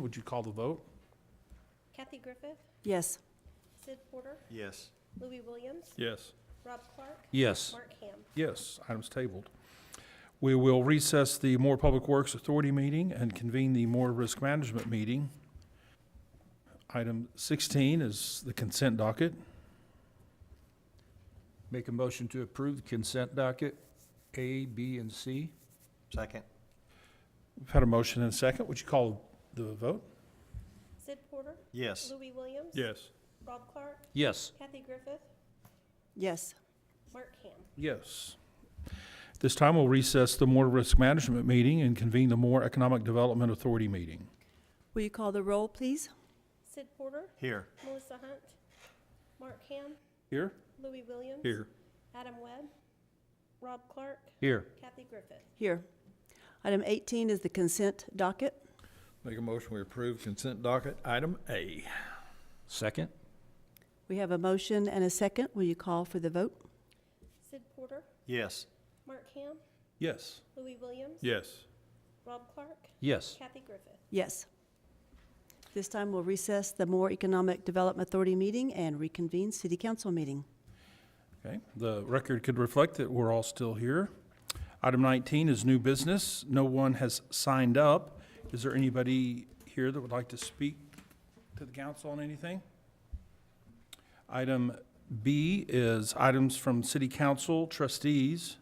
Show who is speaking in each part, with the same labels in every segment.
Speaker 1: Would you call the vote?
Speaker 2: Kathy Griffith,
Speaker 3: Yes.
Speaker 2: Sid Porter,
Speaker 4: Yes.
Speaker 2: Louis Williams,
Speaker 5: Yes.
Speaker 2: Rob Clark,
Speaker 1: Yes.
Speaker 2: Mark Ham.
Speaker 1: Yes, item's tabled. We will recess the Moore Public Works Authority meeting and convene the Moore Risk Management meeting. Item 16 is the consent docket.
Speaker 5: Make a motion to approve the consent docket, A, B, and C?
Speaker 4: Second?
Speaker 1: We've had a motion and a second. Would you call the vote?
Speaker 2: Sid Porter,
Speaker 4: Yes.
Speaker 2: Louis Williams. Rob Clark,
Speaker 5: Yes.
Speaker 2: Kathy Griffith,
Speaker 3: Yes.
Speaker 2: Mark Ham.
Speaker 1: Yes. This time, we'll recess the Moore Risk Management meeting and convene the Moore Economic Development Authority meeting.
Speaker 3: Will you call the roll, please?
Speaker 2: Sid Porter,
Speaker 4: Here.
Speaker 2: Melissa Hunt, Mark Ham,
Speaker 1: Here?
Speaker 2: Louis Williams. Adam Webb, Rob Clark,
Speaker 5: Here.
Speaker 2: Kathy Griffith.
Speaker 3: Here. Item 18 is the consent docket.
Speaker 6: Make a motion, we approve consent docket item A.
Speaker 5: Second?
Speaker 3: We have a motion and a second. Will you call for the vote?
Speaker 2: Sid Porter,
Speaker 4: Yes.
Speaker 2: Mark Ham,
Speaker 1: Yes.
Speaker 2: Louis Williams.
Speaker 6: Yes.
Speaker 2: Rob Clark,
Speaker 5: Yes.
Speaker 2: Kathy Griffith.
Speaker 3: Yes. This time, we'll recess the Moore Economic Development Authority meeting and reconvene city council meeting.
Speaker 1: Okay, the record could reflect that we're all still here. Item 19 is new business. No one has signed up. Is there anybody here that would like to speak to the council on anything? Item B is items from city council trustees.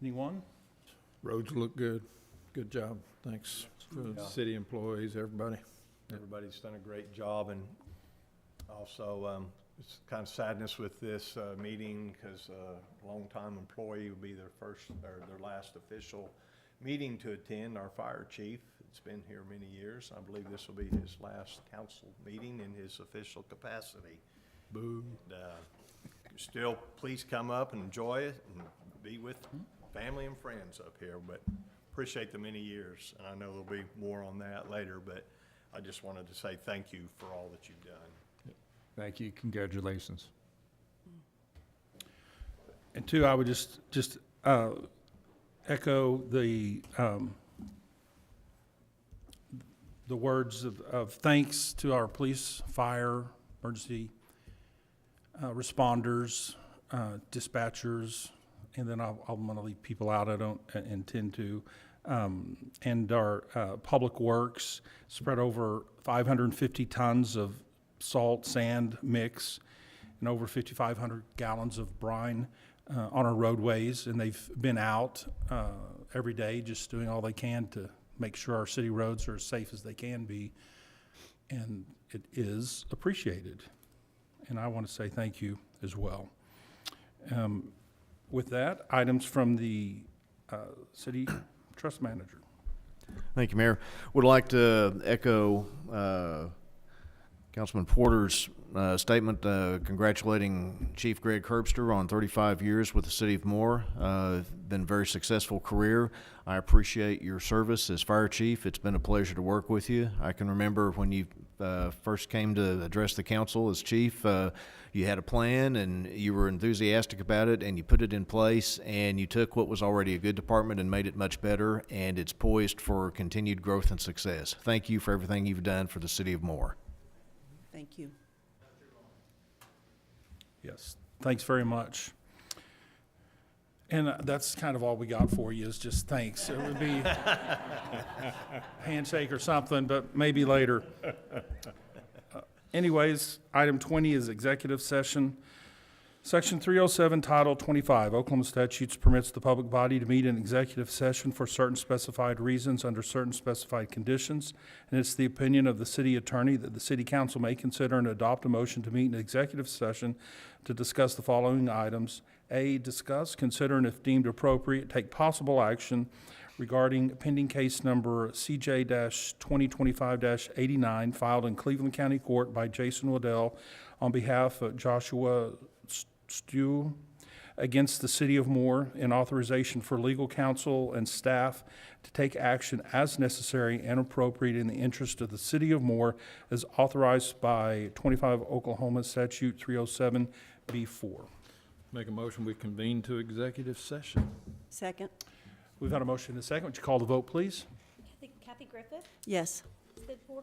Speaker 1: Anyone?
Speaker 6: Roads look good. Good job. Thanks for the city employees, everybody.
Speaker 4: Everybody's done a great job, and also, um, it's kind of sadness with this uh, meeting, because a longtime employee will be their first, or their last official meeting to attend, our fire chief. It's been here many years. I believe this will be his last council meeting in his official capacity.
Speaker 6: Boo.
Speaker 4: And, uh, Still, please come up and enjoy it, and be with family and friends up here, but appreciate the many years, and I know there'll be more on that later, but I just wanted to say thank you for all that you've done.
Speaker 5: Thank you, congratulations.
Speaker 1: And two, I would just, just uh, echo the, um, the words of, of thanks to our police, fire, emergency uh, responders, uh, dispatchers, and then I'll, I'm gonna leave people out I don't uh, intend to. um, And our uh, public works spread over 550 tons of salt, sand mix, and over 5,500 gallons of brine uh, on our roadways. And they've been out uh, every day, just doing all they can to make sure our city roads are as safe as they can be. And it is appreciated. And I want to say thank you as well. Um, With that, items from the uh, city trust manager.
Speaker 7: Thank you, Mayor. Would like to echo uh, Councilman Porter's uh, statement uh, congratulating Chief Greg Herbster on 35 years with the City of Moore. Uh, Been a very successful career. I appreciate your service as Fire Chief. It's been a pleasure to work with you. I can remember when you uh, first came to address the council as Chief, uh, you had a plan and you were enthusiastic about it and you put it in place and you took what was already a good department and made it much better and it's poised for continued growth and success. Thank you for everything you've done for the City of Moore.
Speaker 3: Thank you.
Speaker 1: Yes, thanks very much. And uh, that's kind of all we got for you is just thanks. It would be handshake or something, but maybe later. Uh, Anyways, item 20 is executive session. Section 307, Title 25 Oklahoma statutes permits the public body to meet in executive session for certain specified reasons under certain specified conditions. And it's the opinion of the city attorney that the city council may consider and adopt a motion to meet in executive session to discuss the following items. A, discuss, consider, and if deemed appropriate, take possible action regarding pending case number CJ-2025-89 filed in Cleveland County Court by Jason Waddell on behalf of Joshua S- Stew against the City of Moore and authorization for legal counsel and staff to take action as necessary and appropriate in the interest of the City of Moore as authorized by 25 Oklahoma Statute 307B4.
Speaker 6: Make a motion, we convene to executive session.
Speaker 3: Second.
Speaker 1: We've had a motion and a second. Would you call the vote, please?
Speaker 2: Kathy- Kathy Griffith,
Speaker 3: Yes.
Speaker 2: Sid Porter.